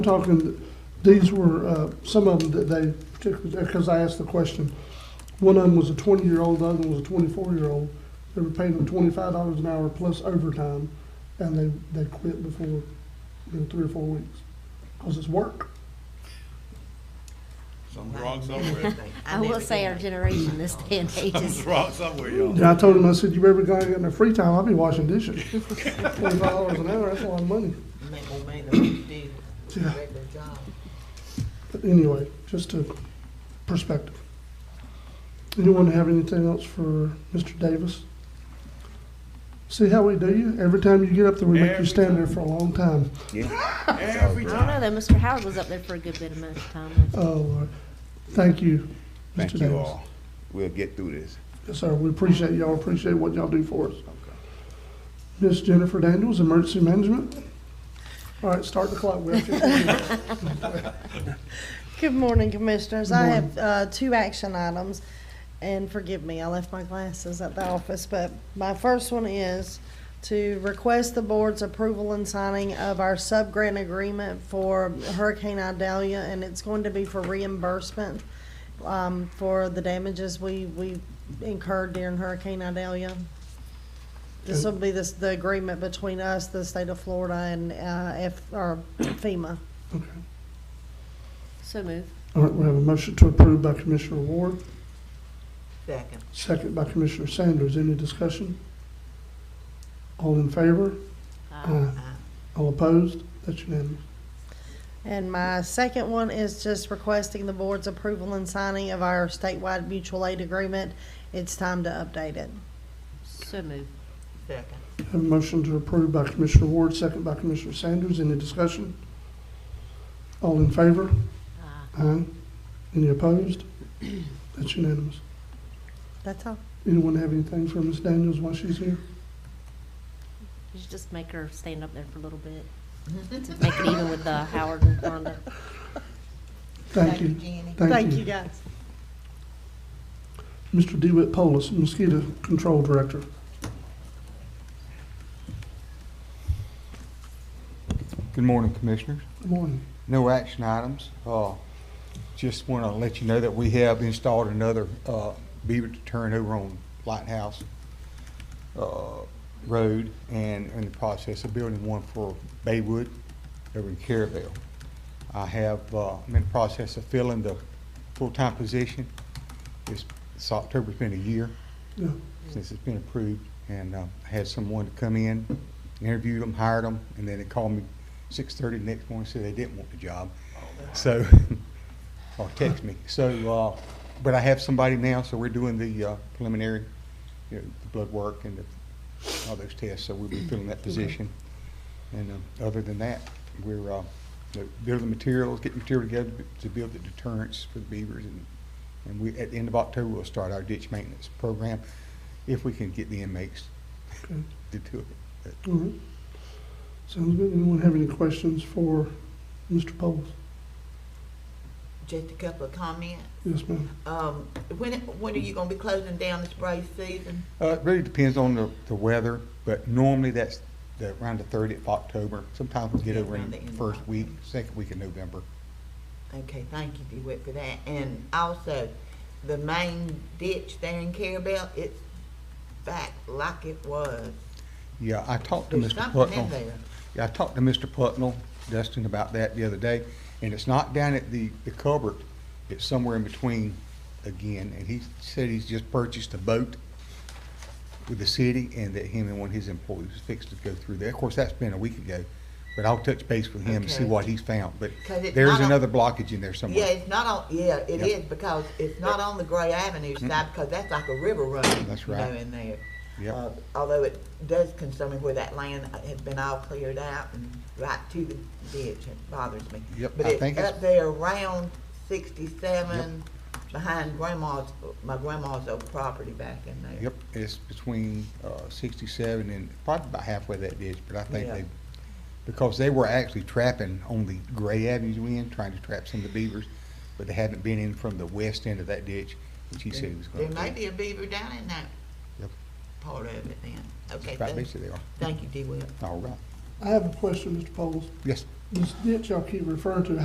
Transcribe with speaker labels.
Speaker 1: talking, these were, uh, some of them that they, particularly, because I asked the question, one of them was a twenty-year-old, the other one was a twenty-four-year-old. They were paying them twenty-five dollars an hour plus overtime, and they, they quit before, you know, three or four weeks, because it's work.
Speaker 2: Something's wrong somewhere.
Speaker 3: I will say our generation, this day and age
Speaker 2: Something's
Speaker 3: is,
Speaker 2: wrong somewhere, y'all.
Speaker 1: And I told him, I said, you ever gonna get in their free time, I'll be washing dishes. Twenty-five dollars an hour, that's a lot of money.
Speaker 4: make more money than what you did with your
Speaker 1: Yeah.
Speaker 4: regular job.
Speaker 1: But anyway, just a perspective. Anyone have anything else for Mr. Davis? See how we do you? Every time you get up there, we make you
Speaker 2: Every
Speaker 1: stand there for a long time.
Speaker 2: Every
Speaker 3: I don't know
Speaker 2: time.
Speaker 3: though, Mr. Howard was up there for a good bit amount of time. wasn't
Speaker 1: Oh, Lord. Thank you,
Speaker 5: Thank
Speaker 1: Mr.
Speaker 5: you
Speaker 1: Davis.
Speaker 5: all. We'll get through this.
Speaker 1: Yes, sir. We appreciate y'all, appreciate what y'all do for us. Miss Jennifer Daniels, Emergency Management. All right, start the clock. We have 15 minutes.
Speaker 6: Good morning, Commissioners. I
Speaker 1: morning.
Speaker 6: have uh, two action items, and forgive me, I left my glasses at the office, but my first one is to request the board's approval and signing of our sub-grant agreement for Hurricane Idalia, and it's going to be for reimbursement um, for the damages we we incurred during Hurricane Idalia. This will be this- the agreement between us, the state of Florida, and uh, F- or FEMA.
Speaker 1: Okay.
Speaker 3: it? So move.
Speaker 1: All right, we have a motion to approve by Commissioner Ward.
Speaker 4: Second.
Speaker 1: Second by Commissioner Sanders. Any discussion? All in favor? Aye.
Speaker 4: uh,
Speaker 1: All opposed? That's unanimous.
Speaker 6: And my second one is just requesting the board's approval and signing of our statewide mutual aid agreement. It's time to update it.
Speaker 3: So move.
Speaker 4: Second.
Speaker 1: Have a motion to approve by Commissioner Ward, second by Commissioner Sanders. Any discussion? All in favor?
Speaker 3: Aye.
Speaker 1: Aye. Any opposed? That's unanimous.
Speaker 6: That's all.
Speaker 1: Anyone have anything for Ms. Daniels while she's here?
Speaker 3: You should just make her stand up there for a little bit. To make it even with uh, Howard and Rhonda.
Speaker 1: Thank you.
Speaker 4: Jenny.
Speaker 6: Thank you, guys.
Speaker 1: Mr. DeWitt Polis, Mosquito Control Director.
Speaker 5: Good morning, Commissioners.
Speaker 1: Good morning.
Speaker 5: No action items. Uh, Just want to let you know that we have installed another uh, beaver deterrent over on Lighthouse uh, Road and in the process of building one for Baywood over in Caravelle. I have, uh, I'm in the process of filling the full-time position. This this October's been a year.
Speaker 1: Yeah.
Speaker 5: since it's been approved, and uh, I had someone to come in, interviewed them, hired them, and then they called me six thirty the next morning, and said they didn't want the job. So, or text me. So, uh, but I have somebody now, so we're doing the uh, preliminary, you know, the blood work and the- all those tests, so we'll be filling that position. And um, other than that, we're uh, you know, building materials, getting material together to build the deterrents for the beavers. And and we, at the end of October, we'll start our ditch maintenance program if we can get the inmates
Speaker 1: Okay.
Speaker 5: to do it.
Speaker 1: All right. Sounds good. Anyone have any questions for Mr. Polis?
Speaker 4: Just a couple of comments.
Speaker 1: Yes, ma'am.
Speaker 4: Um, when, when are you gonna be closing down this brace season?
Speaker 5: Uh, it really depends on the, the weather, but normally that's the, around the thirtieth of October. Sometimes we get over in
Speaker 4: Around
Speaker 5: the
Speaker 4: the end of
Speaker 5: first week,
Speaker 4: October.
Speaker 5: second week of November.
Speaker 4: Okay, thank you, DeWitt, for that. And also, the main ditch there in Carabel, it's back like it was.
Speaker 5: Yeah, I talked to
Speaker 4: There's
Speaker 5: Mr.
Speaker 4: something in
Speaker 5: Putnell.
Speaker 4: there.
Speaker 5: Yeah, I talked to Mr. Putnell, Dustin, about that the other day, and it's not down at the, the cupboard. It's somewhere in between again, and he said he's just purchased a boat with the city and that him and one of his employees was fixed to go through there. Of course, that's been a week ago, but I'll touch base with him and see
Speaker 4: Okay.
Speaker 5: what he's found, but
Speaker 4: 'Cause it's
Speaker 5: there's
Speaker 4: not on-
Speaker 5: another blockage in there
Speaker 4: Yeah,
Speaker 5: somewhere.
Speaker 4: it's not on, yeah, it
Speaker 5: Yep.
Speaker 4: is, because it's not on the Gray Avenue side, because that's like a river run.
Speaker 5: That's
Speaker 4: you know,
Speaker 5: right.
Speaker 4: In there.
Speaker 5: Yep.
Speaker 4: Uh, Although it does concern me where that land has been all cleared out and right to the ditch, it bothers me.
Speaker 5: Yep,
Speaker 4: But
Speaker 5: I think
Speaker 4: it's
Speaker 5: it's-
Speaker 4: up there around sixty-seven, behind grandma's, my grandma's old property back in there.
Speaker 5: Yep, it's between uh, sixty-seven and probably about halfway that ditch, but I think
Speaker 4: Yeah.
Speaker 5: they, because they were actually trapping on the Gray Avenue end, trying to trap some of the beavers, but they hadn't been in from the west end of that ditch, which he said he was
Speaker 4: There
Speaker 5: gonna do.
Speaker 4: may be a beaver down in that
Speaker 5: Yep.
Speaker 4: part of it then. Okay,
Speaker 5: Right,
Speaker 4: thank-
Speaker 5: basically they are.
Speaker 4: thank you, D. Will.
Speaker 5: All right,
Speaker 1: I have a question, Mr. Polis.
Speaker 5: yes,
Speaker 1: This ditch y'all keep referring to,